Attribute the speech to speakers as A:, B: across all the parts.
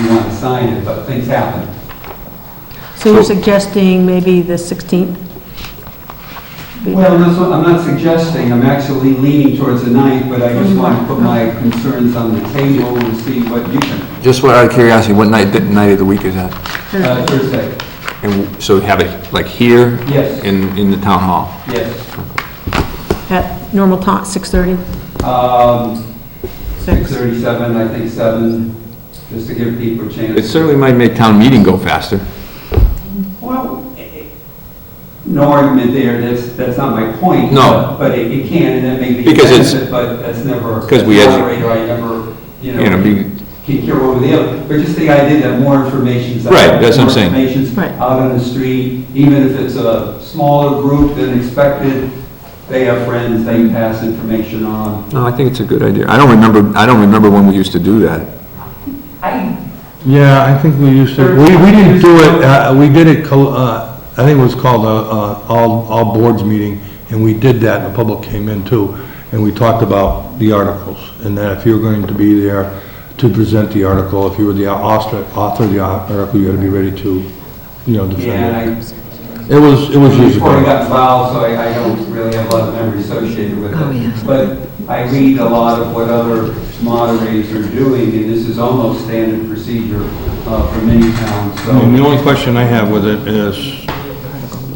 A: you want to sign it, but things happen.
B: So you're suggesting maybe the 16th?
A: Well, that's what, I'm not suggesting, I'm actually leaning towards the ninth, but I just want to put my concerns on the table and see what you can,
C: Just out of curiosity, what night, night of the week is that?
A: uh, Thursday,
C: And so have it like here?
A: Yes.
C: In, in the town hall?
A: yes.
B: At normal time, 6:30?
A: Um,
B: Six.
A: six thirty-seven, I think seven, just to give people a chance.
C: It certainly might make town meeting go faster.
A: Well, eh, eh, no argument there, that's, that's not my point.
C: No.
A: But it, it can, and that may be
C: Because it's-
A: expensive, but that's never.
C: 'Cause we
A: as
C: edu-
A: an operator, I never, you
C: You know,
A: know,
C: be-
A: can care over the other. But just the idea that more information's out.
C: Right, that's what I'm saying.
A: More information's
B: Right.
A: out on the street, even if it's a smaller group than expected, they have friends, they pass information on.
C: No, I think it's a good idea. I don't remember, I don't remember when we used to do that.
A: I,
D: Yeah, I think we used to, we, we didn't do it, uh, we did it, co- uh, I think it was called a, uh, all, all boards meeting, and we did that, and the public came in too, and we talked about the articles, and that if you were going to be there to present the article, if you were the author, author of the article, you had to be ready to, you know,
A: yeah,
D: defend it.
A: and I
D: It was, it was years
A: before I
D: ago.
A: got involved, so I, I don't really have a lot of memory associated with it.
B: Oh, yes.
A: But I read a lot of what other moderators are doing, and this is almost standard procedure uh, for many towns, so.
D: I mean,
C: Mm-hmm.
D: the only question I have with it is,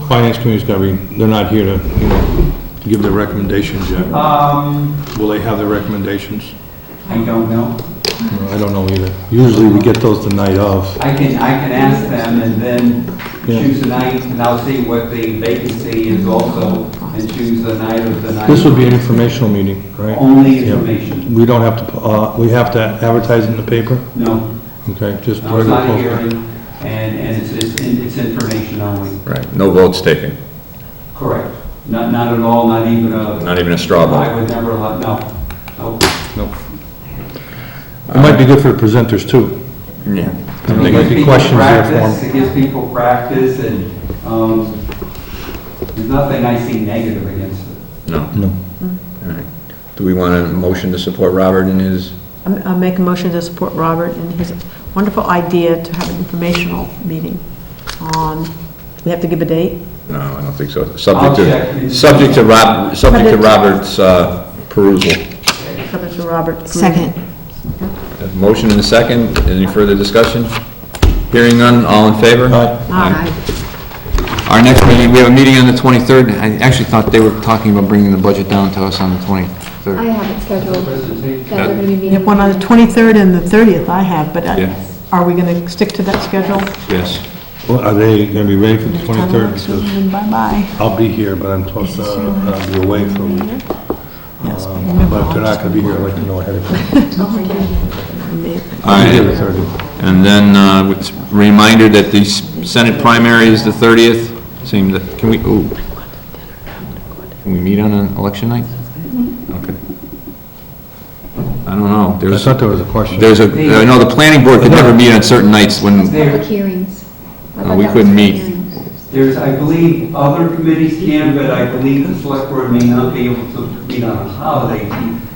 D: finance committee's gotta be, they're not here to, you know, give their recommendations yet.
A: Um,
D: Will they have their recommendations?
A: I don't know.
D: No, I don't know either. Usually we get those the night of.
A: I can, I can ask them and then
D: Yeah.
A: choose a night, and I'll see what the vacancy is also, and choose the night of the night.
D: This would be an informational meeting, right?
A: Only
D: Yeah.
A: information,
D: We don't have to, uh, we have to advertise it in the paper?
A: no,
D: Okay, just.
A: no, it's
D: regular
A: not a
D: post-
A: hearing, and, and it's, it's, it's information only.
C: Right. No votes taken,
A: Correct. Not, not at all, not even a,
C: not even a straw
A: I would never let, no, no.
D: Nope. It might be good for the presenters too.
C: Yeah.
D: There
A: It
D: might
A: gives
D: be
A: people
D: questions there for 'em.
A: practice, It gives people practice and, um, there's nothing I see negative against it.
C: No.
D: No.
C: All right. Do we want a motion to support Robert in his?
B: I'm- um, I'll make a motion to support Robert and his wonderful idea to have an informational meeting on, we have to give a date?
C: No, I don't think so.
A: I'll
C: Subject to,
A: check.
C: subject to Rob, subject
B: Subject
C: to
B: to-
C: Robert's uh, perusal.
B: Subject to Robert.
E: Second.
C: A Motion and a second. Any further discussion? Hearing none, all in favor?
D: Aye.
B: All right.
C: Our next meeting, we have a meeting on the 23rd. I actually thought they were talking about bringing the budget down to us on the 23rd.
F: I have it scheduled,
A: Presentation.
F: that we're gonna be
B: We
F: meeting.
B: have one on the 23rd and the 30th I have, but
C: Yeah.
B: I- are we going to stick to that schedule?
C: Yes.
D: Well, Are they gonna be ready for the twenty-third? Because
B: Then Bye-bye.
D: I'll be here, but I'm supposed to uh, be away for a week.
B: Yes.
D: Um, But if they're not gonna be here, I'd like to know ahead of time.
C: All right. And then, uh, with- reminder that the s- Senate primary is the 30th. Seems that, can we, ooh. Can we meet on an election night? Okay. I don't know.
D: I
C: There's,
D: thought there was a question.
C: there's a, I know the planning board could never meet on certain nights when,
F: Public
A: There,
F: hearings. I
C: Uh,
F: thought
C: we
F: that was
C: couldn't
F: for
C: meet.
F: hearings.
A: there's, I believe, other committees can, but I believe the select board may not be able to meet on a holiday.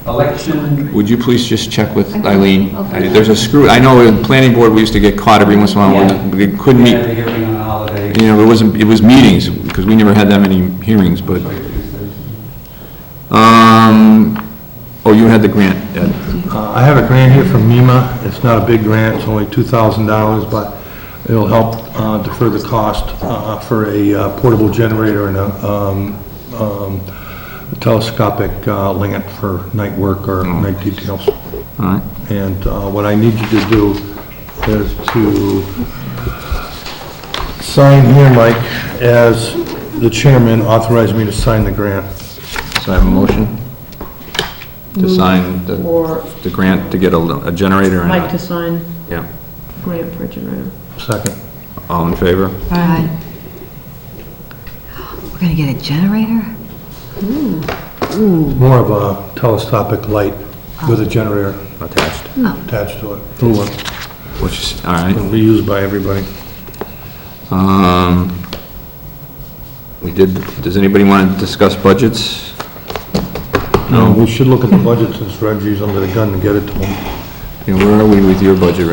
A: Election,
C: would you please just check with
F: Okay.
C: Eileen?
F: Okay.
C: There's a screw, I know in planning board, we used to get caught every once in a while when we couldn't
A: they
C: meet.
A: have a hearing on a holiday.
C: You know, it wasn't, it was meetings, because we never had that many hearings, but, um, oh, you had the grant, Ed.
D: Uh, I have a grant here from MEMA. It's not a big grant, it's only $2,000, but it'll help uh, defer the cost uh, for a uh, portable generator and a um, um, telescopic uh, lantern for night work or
C: Mm.
D: night details.
C: All right.
D: And uh, what I need you to do is to sign here, Mike, as the chairman authorized me to sign the grant.
C: So I have a motion to sign the,
B: Or
C: the grant to get a a generator and
B: like to
C: a,
B: sign
C: yeah.
B: grant for a generator.
D: Second.
C: All in favor?
E: Aye. We're gonna get a generator?
D: More of a telescopic light with a generator
C: Attached.
D: attached to it. Little one.
C: Which is, all right.
D: and reused by everybody.
C: Um, we did, does anybody want to discuss budgets?
D: No, we should look at the budget since Reggie's under the gun to get it to him.
C: You know, where are we with your budget